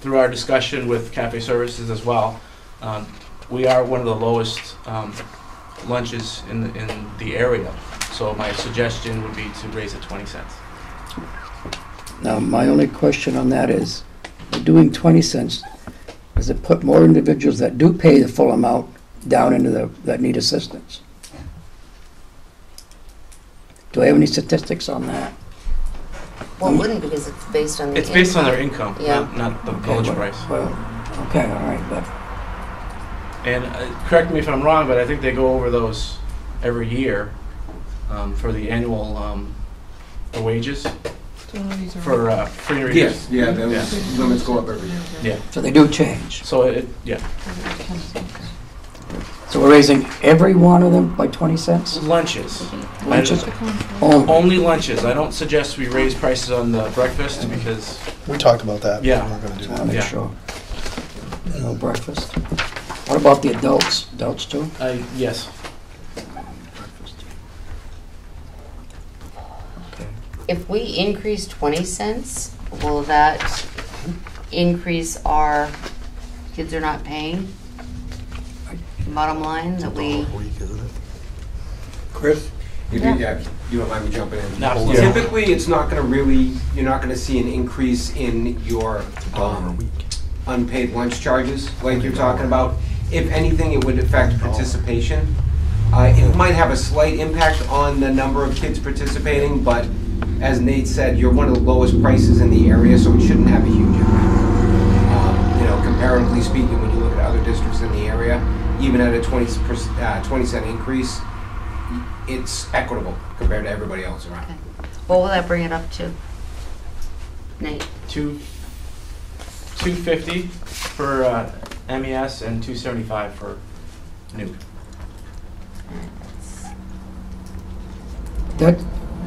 through our discussion with cafe services as well, um, we are one of the lowest um, lunches in, the- in the area. So my suggestion would be to raise it 20 cents. Now, my only question on that is, by doing 20 cents, does it put more individuals that do pay the full amount down into the, that need assistance? Do I have any statistics on that? Well, it wouldn't because it's based on the. It's based on their income. income, Yeah. not, not the Okay, village well- price. Well, okay, all right, but, And uh, correct me if I'm wrong, but I think they go over those every year um, for the annual um, the wages for uh, free and reduced. Yes, yeah, those limits go up every year. so they do change. So it, yeah, So we're raising every one of them by 20 cents? lunches. Lunches only? Only lunches. I don't suggest we raise prices on the breakfast because We talked about that. but Yeah. We're not gonna do Just wanna that. make Yeah. sure. No breakfast. What about the adults? Adults too? I, yes. If we increase twenty cents, will that increase our, kids are not paying? Bottom line, that we, Chris? If you, Yeah. yeah, you don't mind me jumping in? No, absolutely. Yeah. Typically, it's not gonna really, you're not gonna see an increase in your, um, unpaid lunch charges like you're talking about. If anything, it would affect participation. Uh, it might have a slight impact on the number of kids participating, but as Nate said, you're one of the lowest prices in the area, so it shouldn't have a huge impact. Um, You know, comparatively speaking, when you look at other districts in the area, even at a twenty percent, uh, twenty cent increase, it's equitable compared to everybody else around. what will that bring it up to? Nate, Two, two fifty for uh, MES and two seventy-five for nuke. That,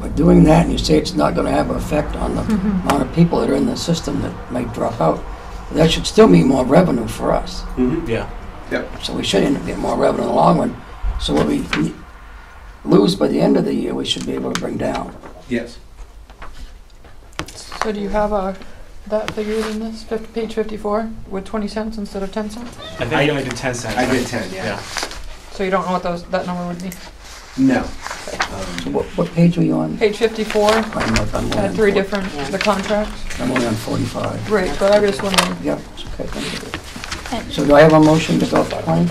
by doing that, and you say it's not gonna have an effect on the Mm-hmm. amount of people that are in the system that might drop out, that should still mean more revenue for us. Yeah. So we should end up getting more revenue in the long run. So what we lose by the end of the year, we should be able to bring down. Yes. So do you have a, that figured in this, fif- page fifty-four, with twenty cents instead of ten cents? I think I only did ten cents. I right? did ten, yeah. Yeah. So you don't know what those, that number would be? No. So what, what page were you on? Page fifty-four I'm not- I'm only had on Uh, three four- different, Yeah. the contracts. I'm only on forty-five. Right, but I was just wondering, Yep, it's okay, thank you. So do I have a motion to go up to twenty?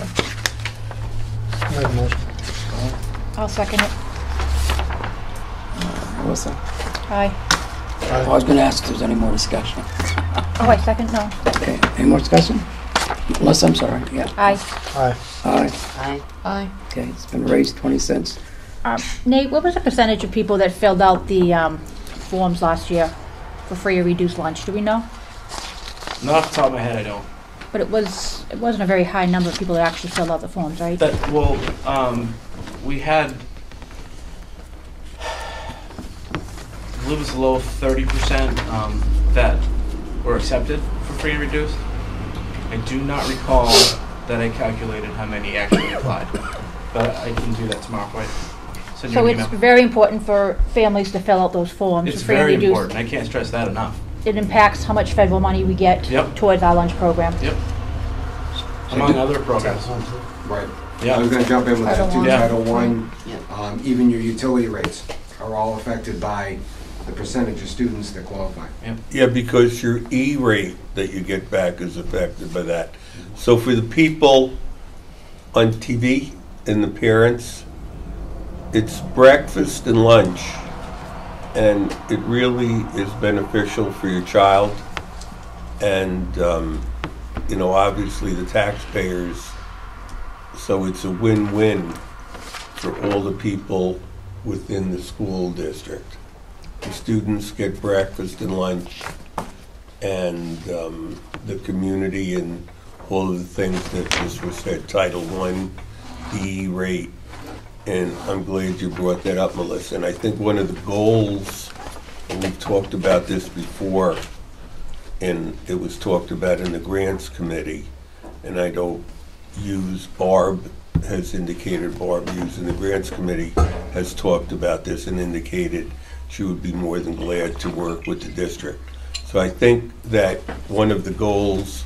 I have a motion. I'll second it. Melissa? Aye. I was gonna ask if there's any more discussion. Oh, I second, no. Okay, any more discussion? Melissa, I'm sorry, yeah. Aye. Aye. All right, I, aye. okay, it's been raised twenty cents. Um, Nate, what was the percentage of people that filled out the um, forms last year for free or reduced lunch? Do we know? Not off the top of my head, I don't. But it was, it wasn't a very high number of people that actually filled out the forms, right? That, well, um, we had, I believe it was low thirty percent, um, that were accepted for free and reduced. I do not recall that I calculated how many actually applied, but I can do that tomorrow, right? Send you So an it's email. very important for families to fill out those forms. It's for free and very reduced. important, I can't stress that enough. It impacts how much federal money we get Yep. towards our lunch program. Yep. Among other programs, Right. I was yeah, gonna jump in with that too, Title Title One, yeah. um, even your utility rates are all affected by the percentage of students that qualify. Yeah, because your E rate that you get back is affected by that. So for the people on TV and the parents, it's breakfast and lunch. And it really is beneficial for your child. And, um, you know, obviously the taxpayers. So it's a win-win for all the people within the school district. The students get breakfast and lunch, and um, the community and all of the things that just was said, Title I, E rate. And I'm glad you brought that up, Melissa. And I think one of the goals, and we've talked about this before, and it was talked about in the grants committee, and I don't use, Barb has indicated, Barb used in the grants committee, has talked about this and indicated she would be more than glad to work with the district. So I think that one of the goals